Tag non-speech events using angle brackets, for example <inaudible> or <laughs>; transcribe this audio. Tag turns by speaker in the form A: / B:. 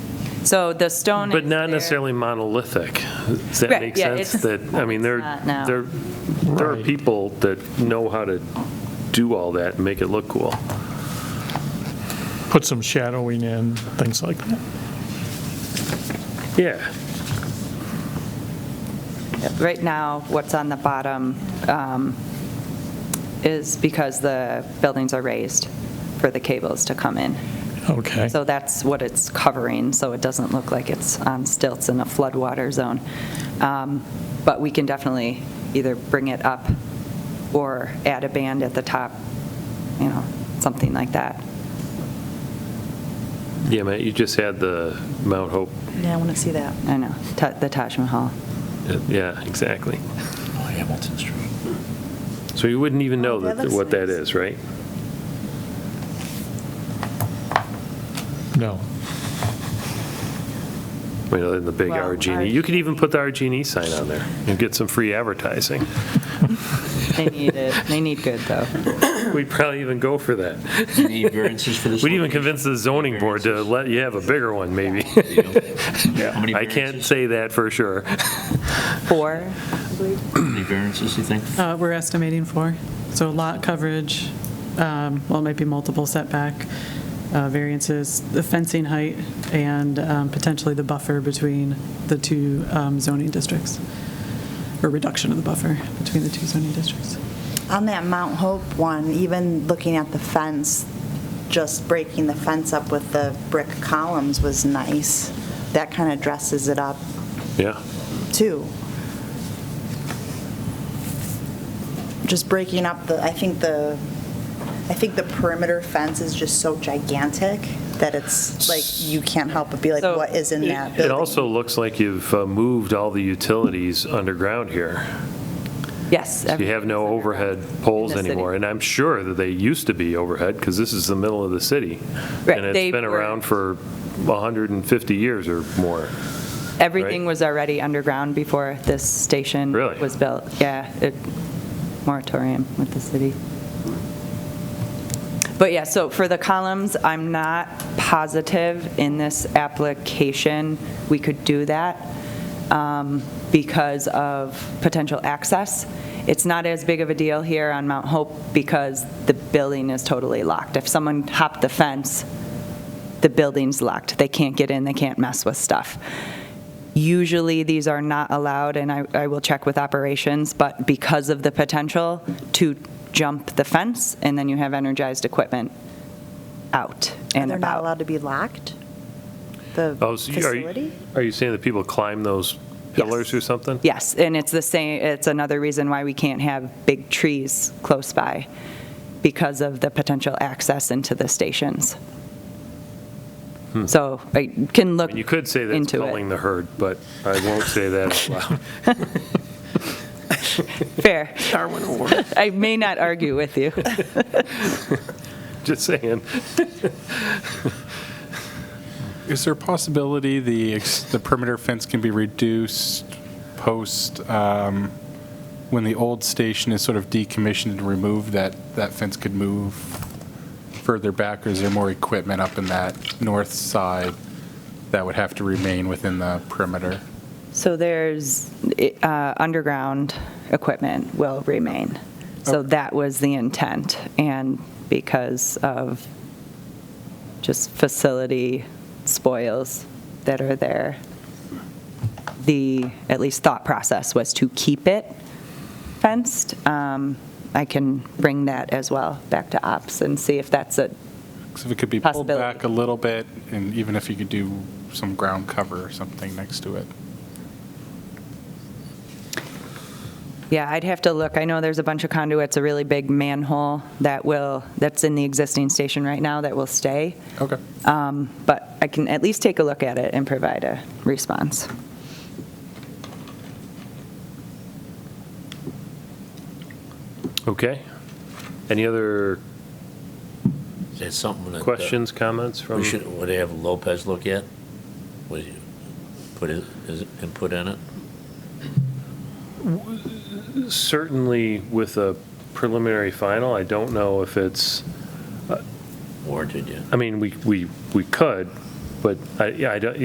A: So the stone is
B: But not
A: there.
B: necessarily monolithic. Does that
A: Right,
B: make
A: yeah,
B: sense?
A: it's-
B: That, I mean, there,
A: It's not,
B: there,
A: no.
B: there are people that know how to do all that and make it look cool.
C: put some shadowing in, things like that.
B: Yeah,
A: Right now, what's on the bottom um, is because the buildings are raised for the cables to come in.
C: Okay.
A: So that's what it's covering, so it doesn't look like it's on stilts in a floodwater zone. Um, But we can definitely either bring it up or add a band at the top, you know, something like that.
B: yeah, Matt, you just had the Mount Hope,
D: Yeah, I want to see that.
A: I know, Ta- the Taj Mahal.
B: yeah, exactly.
E: Hamilton Street.
B: So you wouldn't even know
D: Oh, that
B: that
D: looks
B: what that
D: nice.
B: is, right?
C: No.
B: I mean, other than the big
A: Well,
B: Argini. You could even put the Argini E sign on there and get some free advertising.
A: They need it, they need good, though.
B: We'd probably even go for that.
E: Do you need variances for this?
B: We'd even convince the zoning board to let you have a bigger one, maybe.
E: How
B: <laughs>
E: many
B: I can't
E: variances,
B: say that for sure.
A: Four,
E: how many variances, you think?
F: Uh, We're estimating four. So lot coverage, um, well, it might be multiple setback uh, variances, the fencing height, and um, potentially the buffer between the two um, zoning districts, or reduction of the buffer between the two zoning districts.
D: On that Mount Hope one, even looking at the fence, just breaking the fence up with the brick columns was nice. That kind of dresses it up,
B: Yeah.
D: too. Just breaking up the, I think the, I think the perimeter fence is just so gigantic that it's like, you can't help but be like,
A: So-
D: what is in that
B: It
D: building?
B: also looks like you've uh, moved all the utilities underground here.
A: yes.
B: You have no overhead poles
A: In the city.
B: anymore, and I'm sure that they used to be overhead, because this is the middle of the city.
A: Right,
B: And it's
A: they
B: been
A: were-
B: around for 150 years or more.
A: Everything
B: right?
A: was already underground before this station
B: Really?
A: was built. Yeah, it, moratorium with the city. But yeah, so for the columns, I'm not positive in this application we could do that um, because of potential access. It's not as big of a deal here on Mount Hope because the building is totally locked. If someone hopped the fence, the building's locked. They can't get in, they can't mess with stuff. Usually, these are not allowed, and I, I will check with operations, but because of the potential to jump the fence, and then you have energized equipment out
D: And
A: and
D: they're not
A: about.
D: allowed to be locked? The
B: Oh, so you- are you-
D: facility?
B: Are you saying that people climb those pillars or something?
A: Yes, and it's the same, it's another reason why we can't have big trees close by, because of the potential access into the stations. So I can
B: Hmm. I
A: look
B: mean, You could say that's
A: into it.
B: culling the herd, but I won't say that out loud.
A: <laughs> Fair. <laughs> I may not argue with you.
B: Just saying.
G: Is there a possibility the, ex- the perimeter fence can be reduced post, um, when the old station is sort of decommissioned and removed, that, that fence could move further back, or is there more equipment up in that north side that would have to remain within the perimeter?
A: So there's, uh, underground equipment will remain. So
G: Okay.
A: that was the intent, and because of just facility spoils that are there, the, at least thought process was to keep it fenced. Um, I can bring that as well back to ops and see if that's a,
G: So if it could be pulled
A: Possibility.
G: back a little bit, and even if you could do some ground cover or something next to it.
A: Yeah, I'd have to look. I know there's a bunch of conduits, a really big manhole that will, that's in the existing station right now that will stay.
G: Okay.
A: Um, But I can at least take a look at it and provide a response.
B: Okay. Any other
E: Is that something that? uh,
B: questions, comments from?
E: We should, would they have Lopez look at? Would you put his, his input in it?
B: Certainly with a preliminary final, I don't know if it's,
E: Warranted, yeah?
B: I mean, we, we, we could, but I, yeah, I don't,